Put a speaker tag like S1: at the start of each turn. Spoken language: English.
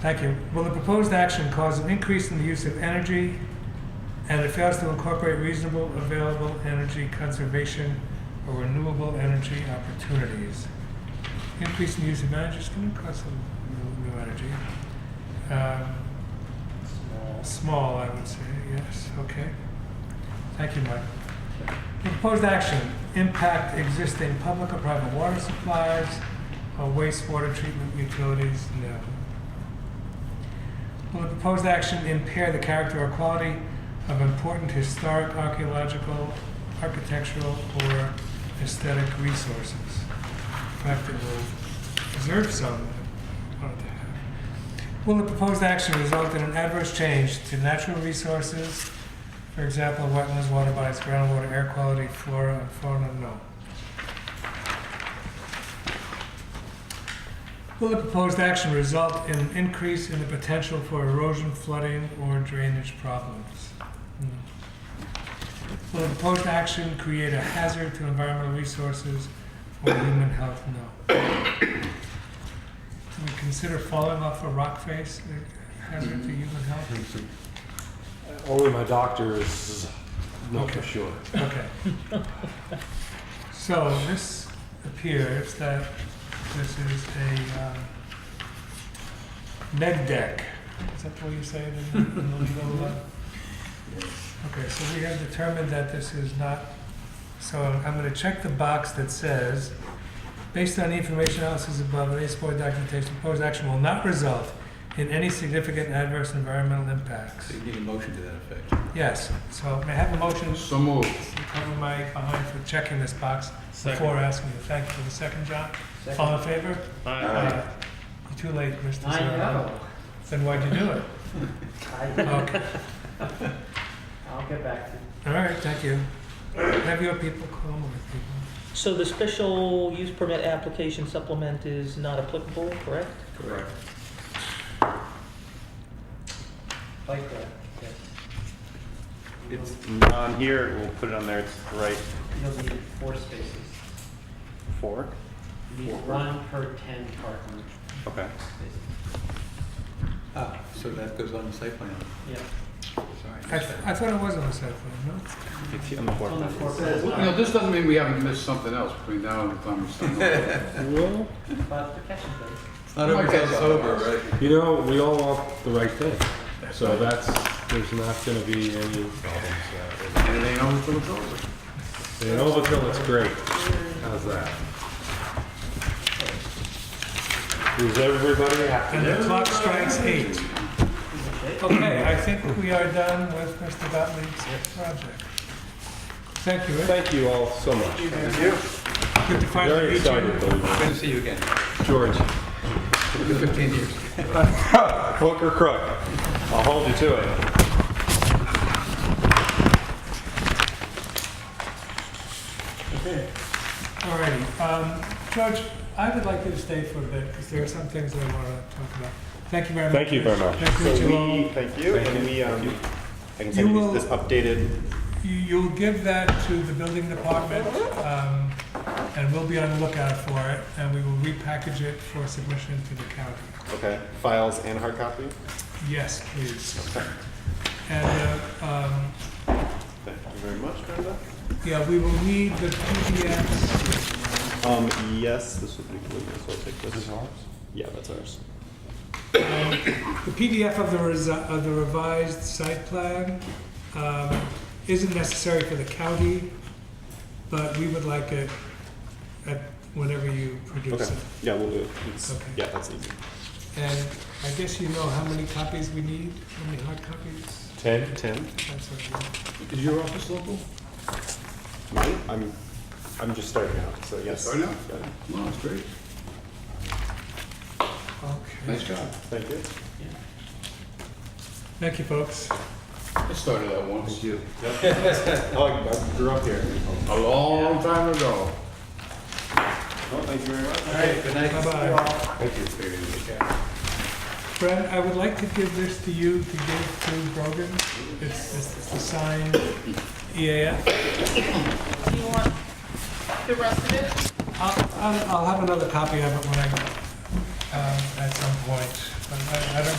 S1: Thank you. Will the proposed action cause an increase in the use of energy and it fails to incorporate reasonable available energy conservation or renewable energy opportunities? Increase in the use of energy is going to cause some new, new energy. Um, small, I would say, yes, okay. Thank you, Mike. The Proposed action, impact existing public or private water supplies or wastewater treatment utilities, no. Will the proposed action impair the character or quality of important historic, archaeological, architectural, or aesthetic resources? In fact, it will preserve some that we wanted to have. Will the proposed action result in an adverse change to natural resources, for example, wetlands, water bodies, groundwater, air quality, flora, and fauna, no. Will the proposed action result in an increase in the potential for erosion, flooding, or drainage problems? No. Will the proposed action create a hazard to environmental resources or human health? No. Do we consider falling off a rock face a hazard to human health?
S2: Only my doctor is not for
S1: Okay.
S2: sure.
S1: Okay. So this appears that this is a um, neg deck. Is that what you say it in the in the legal? uh? Okay, so we have determined that this is not, so I'm going to check the box that says, based on the information analysis above and any support documentation, proposed action will not result in any significant adverse environmental impacts.
S3: So you need a motion to that effect.
S1: Yes, so may I have a motion?
S4: So moved.
S1: cover my behind for checking this box before asking you. Thank you for the second, John. All in favor? Aye. You're too late, Mr.
S5: I
S1: Serrano.
S5: know.
S1: Then why'd you do it?
S5: I,
S1: Okay,
S5: I'll get back to you.
S1: all right, thank you. Have your people call my people.
S6: So the special use permit application supplement is not applicable, correct?
S3: Correct.
S5: Like that. Okay.
S7: It's on here, we'll put it on there, it's right
S5: You'll need four spaces.
S7: four,
S5: You need one per ten parking
S7: okay.
S5: spaces.
S3: Ah, so that goes on the site plan.
S5: Yeah.
S1: I,
S3: Sorry.
S1: th- I thought it was on the cell phone,
S7: It's on the floor
S5: On the
S7: plan.
S5: four
S4: You know, this doesn't mean we haven't missed something else between now and the time we start.
S5: But the catch and base.
S3: It's not over till it's over, right?
S2: You know, we all want the right thing. So that's, there's not gonna be any problems. uh,
S4: And it ain't over till it's over.
S2: in- In Overkill, it's great. How's that? Is everybody happy?
S1: no? And the clock strikes eight. Okay, I think we are done with Mr. Gottlieb's project. Thank you, Rick.
S2: Thank you all so much.
S1: Good to finally
S2: Very
S1: meet you.
S2: excited, believe
S3: Good to see you again.
S2: me. George,
S3: It's been 15 years.
S2: hook or crook? I'll hold you to it.
S1: All righty. Um, George, I would like you to stay for a bit because there are some things that I want to talk about. Thank you very much.
S2: Thank you very much.
S1: Nice to
S7: So
S1: meet you all.
S7: we, thank you, and we, um, I can send
S1: You
S7: you this this
S1: will-
S7: updated,
S1: You- You'll give that to the building department um, and we'll be on the lookout for it and we will repackage it for submission to the county.
S7: okay, files and hard copy?
S1: Yes, please.
S7: Okay,
S1: And uh, um,
S7: thank you very much, Brenda.
S1: yeah, we will need the PDFs.
S7: Um, yes, this would be good, so I'll take this. This is ours? Yeah, that's ours.
S1: The PDF of the resi- of the revised site plan um, isn't necessary for the county, but we would like it at whenever you produce
S7: Okay,
S1: it.
S7: yeah, we'll do it. It's,
S1: Okay.
S7: yeah, that's easy.
S1: And I guess you know how many copies we need, how many hard copies?
S7: Ten? Ten.
S1: That's what we-
S4: Is your office local?
S7: Mine? I'm, I'm just starting out, so yes.
S4: starting out?
S7: Got it.
S4: No, that's great. Nice
S1: Okay.
S4: job.
S7: Thank you.
S1: Thank you, folks.
S4: I started that once. You.
S7: Oh, I I grew up here.
S4: A long time ago.
S7: Oh, thank you very much.
S1: All right,
S3: good night.
S1: Bye-bye.
S7: Thank you.
S1: Fred, I would like to give this to you to give to Brogan. It's it's- it's the E signed EAF.
S8: Do you want the rest of it?
S1: I'll- I'll I'll have another copy of it when I, um, at some point. I, I don't